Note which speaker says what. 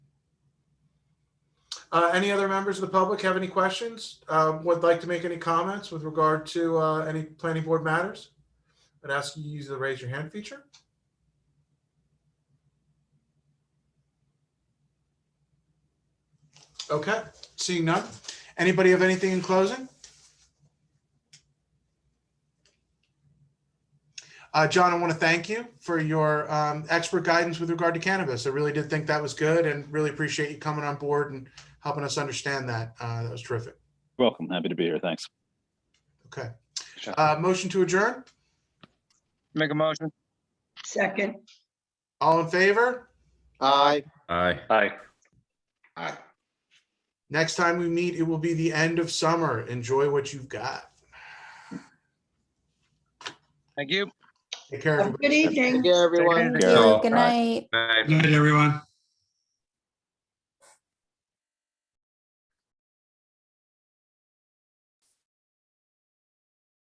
Speaker 1: Uh, any other members of the public have any questions? Um, would like to make any comments with regard to, uh, any planning board matters? I'd ask you to use the raise your hand feature. Okay, seeing none. Anybody have anything in closing? Uh, John, I want to thank you for your um, expert guidance with regard to cannabis. I really did think that was good and really appreciate you coming on board and helping us understand that. Uh, that was terrific.
Speaker 2: Welcome. Happy to be here. Thanks.
Speaker 1: Okay.
Speaker 2: Sure.
Speaker 1: Uh, motion to adjourn.
Speaker 3: Make a motion.
Speaker 4: Second,
Speaker 1: All in favor?
Speaker 5: Aye.
Speaker 6: Aye.
Speaker 3: Aye.
Speaker 5: Aye.
Speaker 1: Next time we meet, it will be the end of summer. Enjoy what you've got.
Speaker 3: Thank you.
Speaker 1: Take care,
Speaker 4: Have a
Speaker 1: everybody.
Speaker 4: good evening.
Speaker 5: Thank you, everyone.
Speaker 3: Take
Speaker 2: care.
Speaker 7: Good night.
Speaker 6: Aye.
Speaker 8: Good night, everyone.